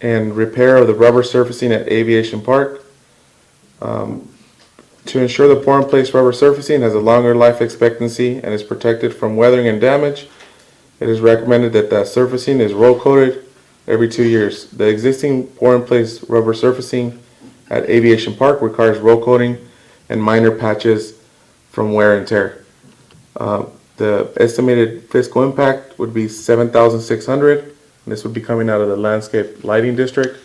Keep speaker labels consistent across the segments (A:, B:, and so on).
A: and repair of the rubber surfacing at Aviation Park. Um, To ensure the pour-in-place rubber surfacing has a longer life expectancy and is protected from weathering and damage, it is recommended that that surfacing is roll coated every two years. The existing pour-in-place rubber surfacing at Aviation Park requires roll coating and minor patches from wear and tear. Uh, The estimated fiscal impact would be seven thousand six hundred, and this would be coming out of the landscape lighting district.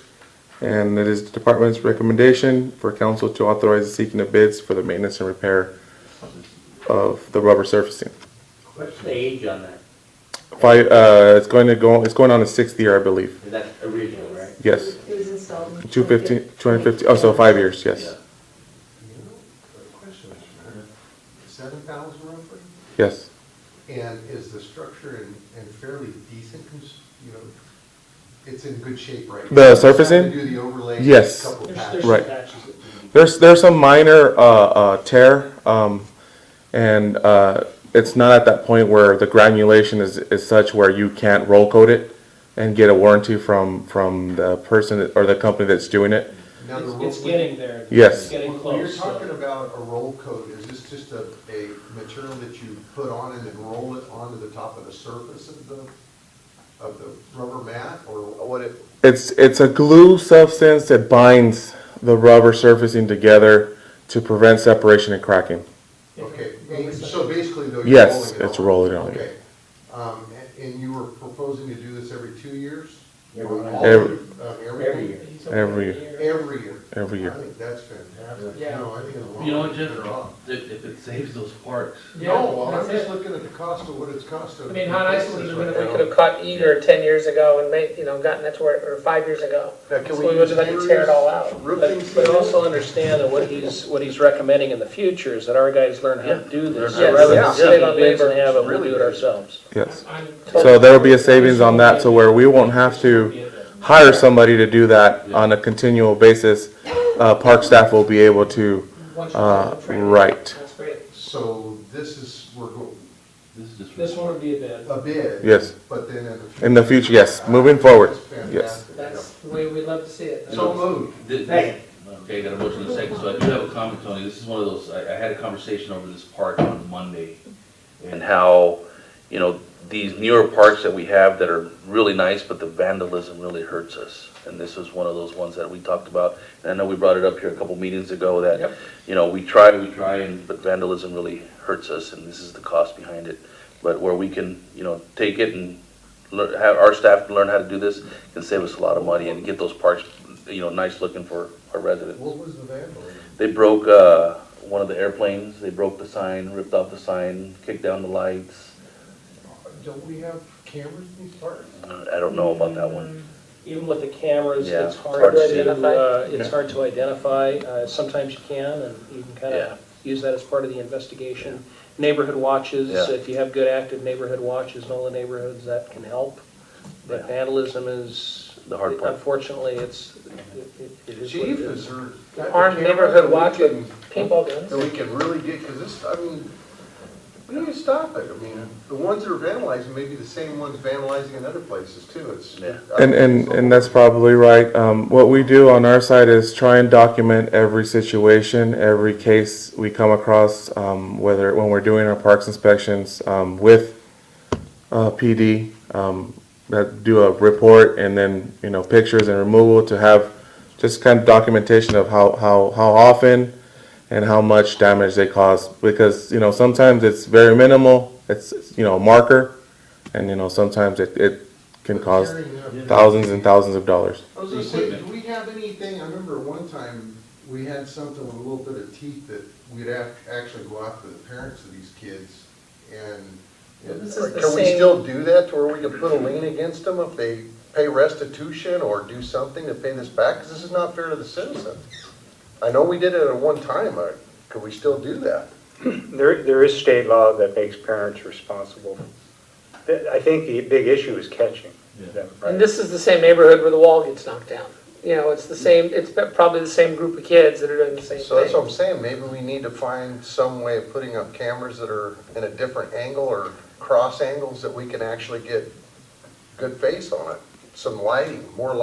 A: And it is the department's recommendation for council to authorize the seeking of bids for the maintenance and repair of the rubber surfacing.
B: What's the age on that?
A: Five, uh, it's going to go, it's going on the sixth year, I believe.
B: Is that original, right?
A: Yes,
C: It was installed in.
A: two fifteen, two hundred fifty, oh, so five years, yes,
D: You know, good question, Mr. Mayor. Seven thousand roughly?
A: yes.
D: And is the structure in, in fairly decent, cons- you know, it's in good shape right now?
A: The
D: Just have to
A: surfacing?
D: Do the overlay.
A: Yes.
D: Couple
E: There's, there's
D: patches.
E: some
A: Right.
E: patches that we need.
A: There's there's some minor uh, uh, tear, um, and uh, it's not at that point where the granulation is, is such where you can't roll coat it and get a warranty from from the person that- or the company that's doing it.
D: Now, the
E: It's-
D: roll-
E: It's getting there.
A: Yes.
E: It's getting
D: When you're
E: close. so-
D: talking about a roll coat, is this just a, a material that you put on and then roll it onto the top of the surface of the, of the rubber mat, or what it,
A: It's it's a glue substance that binds the rubber surfacing together to prevent separation and cracking.
D: Okay, and so basically though, you're rolling it on?
A: Yes, it's rolling it on.
D: Okay. Um, a- and you were proposing to do this every two years?
B: Every
D: Or
B: year.
D: all of
A: Every-
D: it? Um,
B: Every year.
E: He's over here.
A: Every-
D: Every year?
A: Every year.
D: I think that's fantastic.
E: Yeah.
D: No, I think in the long
F: You know,
D: run,
F: it
D: you're
F: just,
D: better off.
F: if, if it saves those parks,
E: Yeah,
D: No, well, I'm
E: that's
D: just
E: it.
D: looking at the cost of what it's cost of.
G: I mean, how nice would it have been if we
D: Right
G: could have caught eager ten years ago and made, you know, gotten that to where, or five years ago?
D: Now, can
G: So
D: we
G: we would
D: use
G: have had to tear it all out.
D: Roofing
H: But but also understand that what he's, what he's recommending in the future is that our guys learn how to do this. So
G: Yes,
H: Rather
G: yeah.
H: than sitting
G: Yeah.
H: on bids and have it, we'll do it ourselves.
A: Yes.
E: I'm
A: So there will be a savings on that to where we won't have to.
E: totally in there.
A: hire somebody to do that on a continual basis, uh, park staff will be able to,
E: Once you're
A: uh,
E: done training,
A: right.
E: That's great.
D: So this is, we're, go-
F: this is just.
E: This one would be a bid.
D: a bid.
A: Yes.
D: But then in the. future-
A: In the future, yes, moving forward,
D: That's
A: yes.
D: fantastic.
E: That's the way we'd love to see it.
D: So moved.
F: Thi-
B: Second.
F: Okay, I got a motion and a second, so I do have a comment, Tony, this is one of those, I, I had a conversation over this park on Monday, and how, you know, these newer parks that we have that are really nice, but the vandalism really hurts us, and this was one of those ones that we talked about, and I know we brought it up here a couple meetings ago, that,
E: Yep.
F: you know, we try, we try, and, but vandalism really hurts us, and this is the cost behind it, but where we can, you know, take it and learn, have our staff learn how to do this, can save us a lot of money and get those parks, you know, nice looking for our residents.
D: What was the vandalism?
F: They broke, uh, one of the airplanes, they broke the sign, ripped off the sign, kicked down the lights.
D: Don't we have cameras in these parks?
F: Uh, I don't know about that one.
H: Even with the cameras,
F: Yeah,
H: it's hard
F: hard to
H: to,
G: identify.
H: uh, it's hard to identify. Uh, Sometimes you can, and you can kind
F: Yeah.
H: of use that as part of the investigation. Neighborhood watches,
F: Yeah.
H: if you have good active neighborhood watches in all the neighborhoods, that can help. But vandalism is,
F: The hard part.
H: unfortunately, it's, it- it- it is what
D: Chief,
H: it
D: is
H: is.
D: there? got the
G: Armed
D: camera
G: neighborhood
D: that we
G: watch
D: can-
G: Paintball guns.
D: That we can really get, because this, I mean, we need to stop it. I mean, the ones that are vandalizing may be the same ones vandalizing in other places too. It's.
F: Yeah.
A: And, and, and that's probably right. Um, what we do on our side is try and document every situation, every case we come across, um, whether, when we're doing our parks inspections, um, with, uh, PD, um, that do a report and then, you know, pictures and removal to have just kind of documentation of how, how, how often and how much damage they cause. Because, you know, sometimes it's very minimal, it's, you know, a marker, and, you know, sometimes it, it can cause thousands and thousands of dollars.
D: I was gonna say, do we have anything, I remember one time, we had something with a little bit of teeth that we'd have, actually go after the parents of these kids and.
G: This is the
D: Can we
G: same-
D: still do that to where we can put a lien against them if they pay restitution or do something to pay this back? Because this is not fair to the citizen. I know we did it at one time, uh, could we still do that?
I: There, there is state law that makes parents responsible. Th- I think the big issue is catching them,
G: And
I: right?
G: this is the same neighborhood where the wall gets knocked down. You know, it's the same, it's probably the same group of kids that are doing the same
D: So that's what
G: thing.
D: I'm saying, maybe we need to find some way of putting up cameras that are in a different angle or cross angles that we can actually get good face on it. Some lighting, more